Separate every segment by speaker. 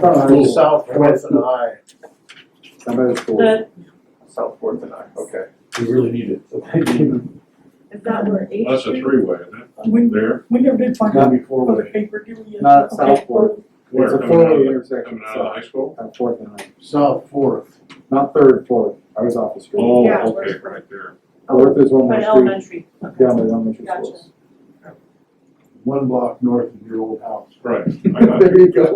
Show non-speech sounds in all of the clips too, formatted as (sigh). Speaker 1: Uh, South Fourth and I,
Speaker 2: The,
Speaker 1: South Fourth and I, okay.
Speaker 3: We really need
Speaker 1: (laughs)
Speaker 3: it.
Speaker 2: is that where H
Speaker 4: That's a
Speaker 2: is?
Speaker 4: three-way, isn't it?
Speaker 5: When,
Speaker 4: There,
Speaker 5: when you did find
Speaker 1: Not
Speaker 5: out
Speaker 1: before
Speaker 5: for the
Speaker 1: we,
Speaker 5: paper, do you?
Speaker 6: Not
Speaker 5: okay,
Speaker 6: Southport.
Speaker 4: where,
Speaker 6: It's a
Speaker 4: coming out
Speaker 6: four-way
Speaker 4: of, the-
Speaker 6: intersection,
Speaker 4: coming out of high school?
Speaker 6: on Fourth and Ninth,
Speaker 1: South Fourth.
Speaker 6: not Third, Fourth, I was off the street.
Speaker 4: Oh,
Speaker 2: Yeah.
Speaker 4: okay, right there.
Speaker 6: Fourth is one more
Speaker 2: By
Speaker 6: street,
Speaker 2: elementary.
Speaker 6: down by the elementary
Speaker 2: Gotcha.
Speaker 6: schools.
Speaker 1: one block north of your old house.
Speaker 4: Right, I got
Speaker 6: There
Speaker 4: you.
Speaker 6: you go.
Speaker 2: (laughs)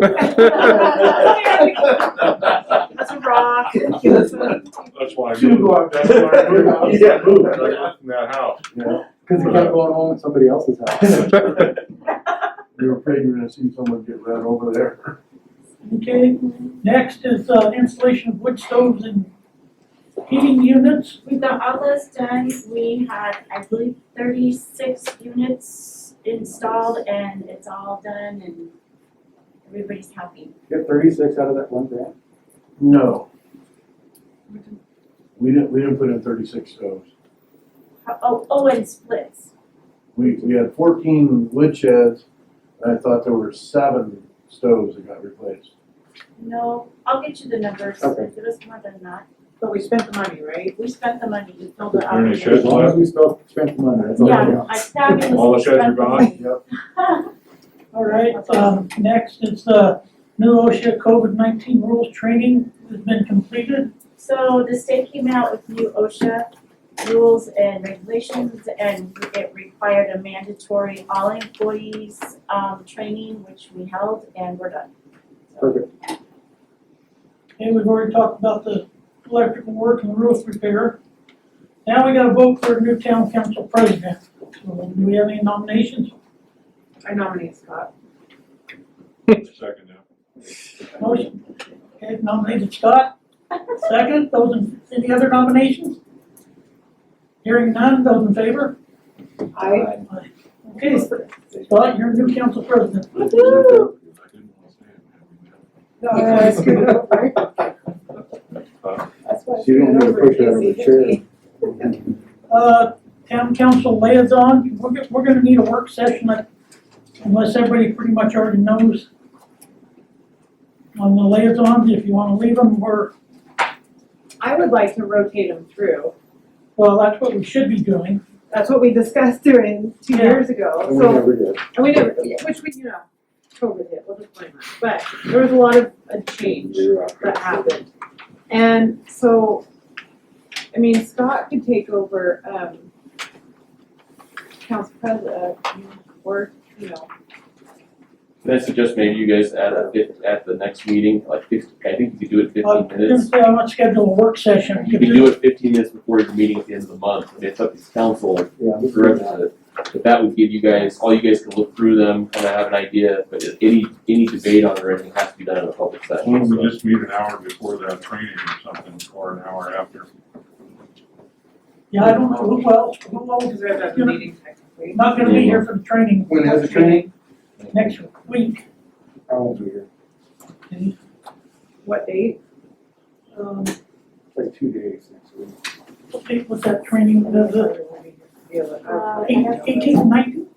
Speaker 2: That's a rock.
Speaker 4: That's why I
Speaker 1: Two
Speaker 4: moved,
Speaker 1: blocks.
Speaker 4: that's why I
Speaker 1: (laughs)
Speaker 4: moved,
Speaker 1: Yeah.
Speaker 4: that's why I moved, I got from that house.
Speaker 6: Cause you kept going home at somebody else's house.
Speaker 4: That's
Speaker 1: We were afraid we were gonna see someone get run over there.
Speaker 5: Okay, next is uh, installation of wood stoves and heating units.
Speaker 7: We got all those done, we had, I believe, thirty-six units installed and it's all done and everybody's happy.
Speaker 6: Get thirty-six out of that one grant.
Speaker 1: No. We didn't, we didn't put in thirty-six stoves.
Speaker 7: How- Oh, oh, and splits,
Speaker 1: We, we had fourteen wood sheds, and I thought there were seven stoves that got replaced.
Speaker 7: no, I'll get you the numbers,
Speaker 6: Okay.
Speaker 7: if it was more than that,
Speaker 2: But we spent the money, right?
Speaker 7: we spent the money to build it
Speaker 4: Is there
Speaker 7: up.
Speaker 4: any sheds
Speaker 6: As long as we still spend the money, that's all that
Speaker 7: Yeah, I
Speaker 6: counts.
Speaker 7: stabbed in.
Speaker 4: All the sheds are gone?
Speaker 1: Yep.
Speaker 5: All right, um, next is the new OSHA COVID-19 rules training has been completed.
Speaker 7: So the state came out with new OSHA rules and regulations and it required a mandatory all employees um training, which we held and we're done.
Speaker 6: Perfect.
Speaker 5: Okay, we've already talked about the electrical work and roof repair. Now we gotta vote for a new town council president. So, Do we have any nominations?
Speaker 2: I nominate Scott.
Speaker 4: Second now.
Speaker 5: Motion, okay, nominated Scott, second, those in, any other nominations? Hearing none, those in favor?
Speaker 6: (laughs)
Speaker 2: I,
Speaker 5: Okay, Scott, you're new council president.
Speaker 2: Woo-hoo.
Speaker 4: I didn't want to say it.
Speaker 2: no, I screwed it up, right? That's why I
Speaker 6: She didn't
Speaker 2: screwed
Speaker 6: even
Speaker 2: over.
Speaker 6: push it out of the
Speaker 2: Casey
Speaker 6: chair.
Speaker 2: hit me.
Speaker 5: Uh, town council liaison, we're, go- we're gonna need a work session, like, unless everybody pretty much already knows. On the liaisons, if you wanna leave them, we're,
Speaker 2: I would like to rotate them through.
Speaker 5: well, that's what we should be doing.
Speaker 2: That's what we discussed doing two
Speaker 5: Yeah.
Speaker 2: years ago,
Speaker 6: And we
Speaker 2: so,
Speaker 6: never did.
Speaker 2: and we never, which we, you know, COVID hit, we'll just blame that. But there was a lot of uh, change.
Speaker 6: We were out there.
Speaker 2: that happened. And so, I mean, Scott could take over, um, council president, or, you know,
Speaker 8: Can I suggest maybe you guys add a fifth, at the next meeting, like fif- I think you could do it
Speaker 5: I
Speaker 8: fifteen
Speaker 5: was gonna
Speaker 8: minutes.
Speaker 5: say, I want to schedule a work session.
Speaker 8: You could do it fifteen minutes before your meeting at the end of the month, and it's up to the council
Speaker 6: Yeah.
Speaker 8: to
Speaker 6: we did
Speaker 8: direct
Speaker 6: that.
Speaker 8: it. But that would give you guys, all you guys can look through them, kinda have an idea, but if any, any debate on it or anything has to be done in a public session.
Speaker 4: Why don't
Speaker 8: so.
Speaker 4: we just meet an hour before that training or something, or an hour after?
Speaker 5: Yeah, I don't know who else, who else
Speaker 2: because
Speaker 5: is
Speaker 2: we have to have a meeting technically.
Speaker 5: not gonna be here for the training.
Speaker 6: When is the training?
Speaker 5: Next week,
Speaker 6: I won't be here,
Speaker 2: What date?
Speaker 5: um,
Speaker 6: like two days next week.
Speaker 5: what date was that training, the,
Speaker 7: Uh,
Speaker 5: the
Speaker 7: I have to-
Speaker 5: eighteenth, nineteenth?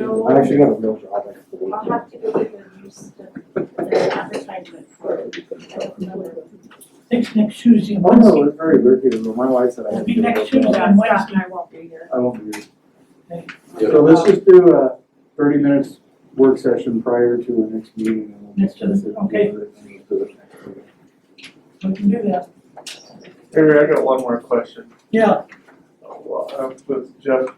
Speaker 7: No,
Speaker 6: I actually got a real job next week.
Speaker 7: I'll have to go get the news, the the advertisement for.
Speaker 5: It's next Tuesday and
Speaker 6: Oh, no,
Speaker 5: Wednesday.
Speaker 6: it's very weird, here, but my wife said I
Speaker 5: It'll
Speaker 6: have to.
Speaker 5: be
Speaker 6: do a
Speaker 5: next
Speaker 6: real job.
Speaker 5: Tuesday and
Speaker 2: Scott
Speaker 5: Wednesday.
Speaker 2: and I won't be here.
Speaker 6: I won't be here.
Speaker 8: Yeah.
Speaker 6: So let's just do a thirty minutes work session prior to our next meeting. and we'll
Speaker 5: Next to the-
Speaker 6: discuss it and
Speaker 5: okay.
Speaker 6: do it and then do it next week.
Speaker 5: We can do that,
Speaker 1: Harry, I got one more question.
Speaker 5: yeah,
Speaker 1: Well, I'm with Jeff,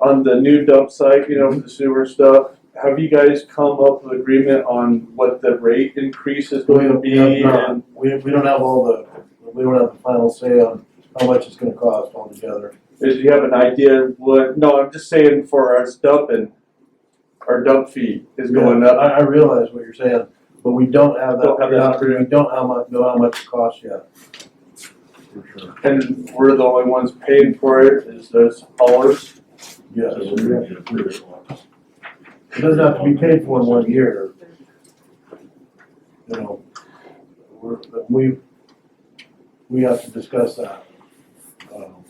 Speaker 1: on the new dump site, you know, for the sewer stuff, have you guys come up with agreement on what the rate increase is going to be? We, we don't have all the, we don't have the final say on how much it's gonna cost altogether.
Speaker 9: Did you have an idea of what, no, I'm just saying for us dumping, our dump fee is going up.
Speaker 1: I, I realize what you're saying, but we don't have that,
Speaker 9: Don't have that.
Speaker 1: we don't how much, know how much it costs yet. For sure.
Speaker 9: And we're the only ones paying for it, is those haulers.
Speaker 1: Yes,
Speaker 4: So we're gonna get approval.
Speaker 1: it doesn't have to be paid for in one year. you know, we're, that we, we have to discuss that. Um,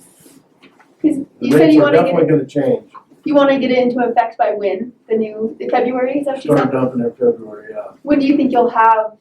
Speaker 10: Because
Speaker 1: The
Speaker 10: you said
Speaker 1: rates
Speaker 10: you
Speaker 1: are
Speaker 10: want to get
Speaker 1: definitely gonna change,
Speaker 10: you want to get it into effect by when the new the February is that what you
Speaker 1: start
Speaker 10: said?
Speaker 1: dumping in February, yeah.
Speaker 10: When do you think you'll have